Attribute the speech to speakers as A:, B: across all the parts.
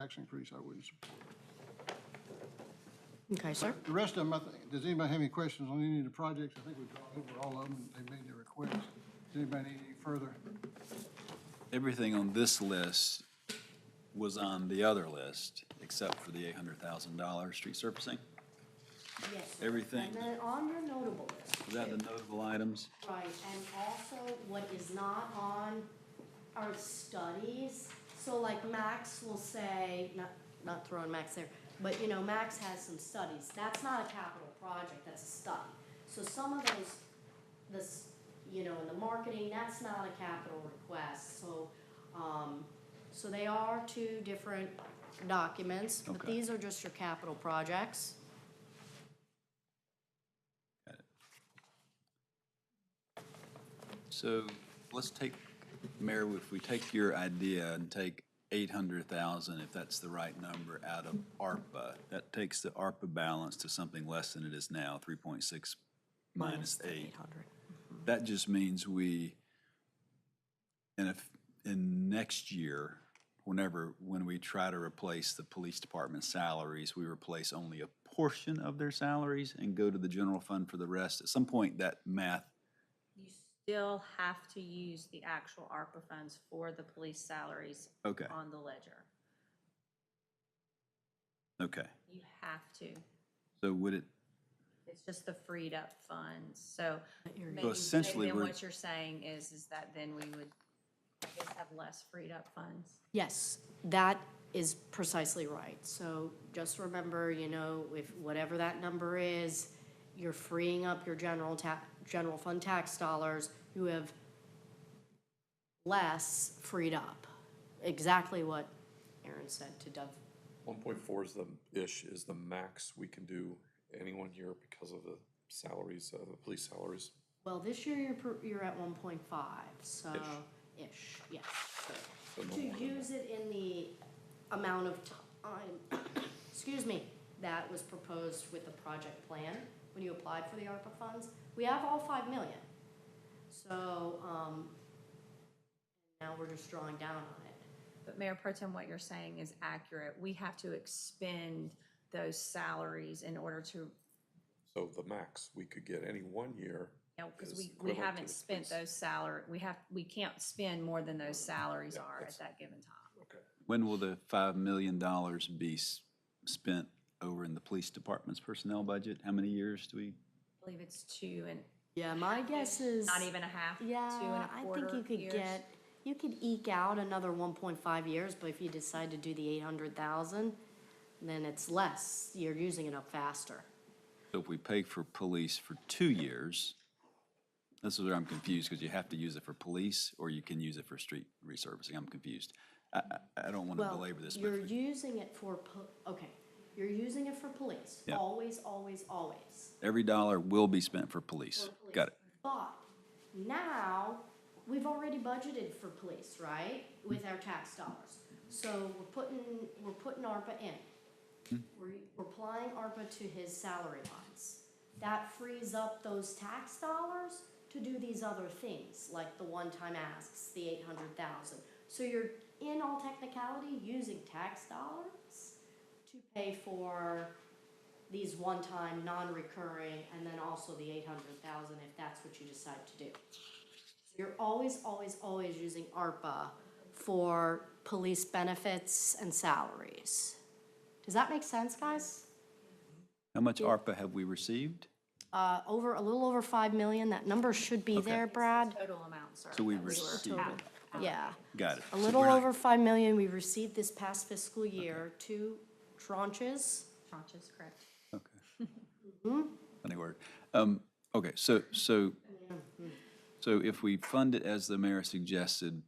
A: tax increase, I wouldn't support.
B: Okay, sir.
A: The rest of them, I think, does anybody have any questions on any of the projects? I think we've gone over all of them, they made their requests. Does anybody need any further?
C: Everything on this list was on the other list, except for the eight hundred thousand dollar street surfacing.
D: Yes.
C: Everything.
D: And then on your notable list,
C: Was that the notable items?
D: right, and also what is not on are studies. So like Max will say, not, not throwing Max there, but you know, Max has some studies. That's not a capital project, that's a study. So some of those, this, you know, in the marketing, that's not a capital request, so, um, so they are two different documents, but
C: Okay.
D: these are just your capital projects.
C: So let's take, Mayor, if we take your idea and take eight hundred thousand, if that's the right number, out of ARPA, that takes the ARPA balance to something less than it is now, three point six minus eight. That just means we, and if, in next year, whenever, when we try to replace the police department salaries, we replace only a portion of their salaries and go to the general fund for the rest. At some point, that math
E: You still have to use the actual ARPA funds for the police salaries
C: Okay.
E: on the ledger.
C: Okay,
E: You have to.
C: so would it,
E: It's just the freed up funds, so. maybe-
C: So essentially,
E: Then
C: we're-
E: what you're saying is, is that then we would just have less freed up funds?
D: Yes, that is precisely right. So just remember, you know, if whatever that number is, you're freeing up your general ta, general fund tax dollars, you have less freed up. Exactly what Aaron said to Dove.
F: One point four is the, ish, is the max we can do any one year because of the salaries, uh, the police salaries.
D: Well, this year you're, per- you're at one point five, so, ish, yes.
F: So no
D: To
F: more than that.
D: use it in the amount of time, excuse me, that was proposed with the project plan when you applied for the ARPA funds, we have all five million. So, um, now we're just drawing down on it.
E: But Mayor Pro Tem, what you're saying is accurate. We have to expend those salaries in order to,
F: So the max we could get any one year.
E: you know, because
F: is
E: we, we
F: equivalent to
E: haven't
F: the
E: spent
F: police.
E: those salary, we have, we can't spend more than those salaries are at that given time.
F: Okay.
C: when will the five million dollars be s- spent over in the police department's personnel budget? How many years do we?
E: I believe it's two and,
D: Yeah, my guess is.
E: not even a half, two and
D: Yeah,
E: a
D: I
E: quarter
D: think you could
E: years.
D: get, you could eke out another one point five years, but if you decide to do the eight hundred thousand, then it's less, you're using it up faster.
C: So if we pay for police for two years, this is where I'm confused, because you have to use it for police, or you can use it for street resurfacing. I'm confused. I, I, I don't want to
D: Well,
C: belabor this, but
D: You're
C: if we-
D: using it for, po- okay, you're using it for police,
C: Yeah.
D: always, always, always.
C: every dollar will be spent for police.
D: for
C: Got it.
D: police. But now, we've already budgeted for police, right, with our tax dollars. So we're putting, we're putting ARPA in. We're, we're applying ARPA to his salary lines. That frees up those tax dollars to do these other things, like the one-time asks, the eight hundred thousand. So you're, in all technicality, using tax dollars to pay for these one-time, non-recurring, and then also the eight hundred thousand, if that's what you decide to do. You're always, always, always using ARPA for police benefits and salaries. Does that make sense, guys?
C: How much ARPA have we received?
D: Uh, over, a little over five million, that number should be there, Brad,
E: Total amount, sir.
C: So we
E: that were
C: received-
E: out- out.
D: yeah.
C: Got it.
D: A
C: So
D: little
C: we're not-
D: over five million we received this past fiscal year, two tranches.
E: Tranches, correct.
C: Okay. Funny word. Um, okay, so, so, so if we fund it as the mayor suggested,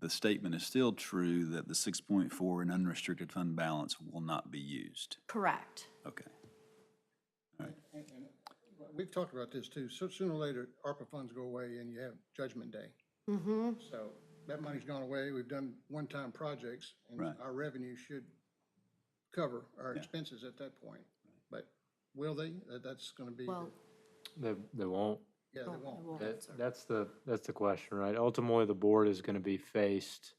C: the statement is still true that the six point four in unrestricted fund balance will not be used.
D: Correct.
C: Okay.
A: We've talked about this too, so sooner or later, ARPA funds go away and you have Judgment Day. So that money's gone away, we've done one-time projects, and
C: Right.
A: our revenue should cover our expenses at that point. But will they? That- That's gonna be, the-
D: Well,
G: They, they won't.
A: yeah, they won't.
D: well,
G: That, that's the, that's the question, right? Ultimately, the board is gonna be faced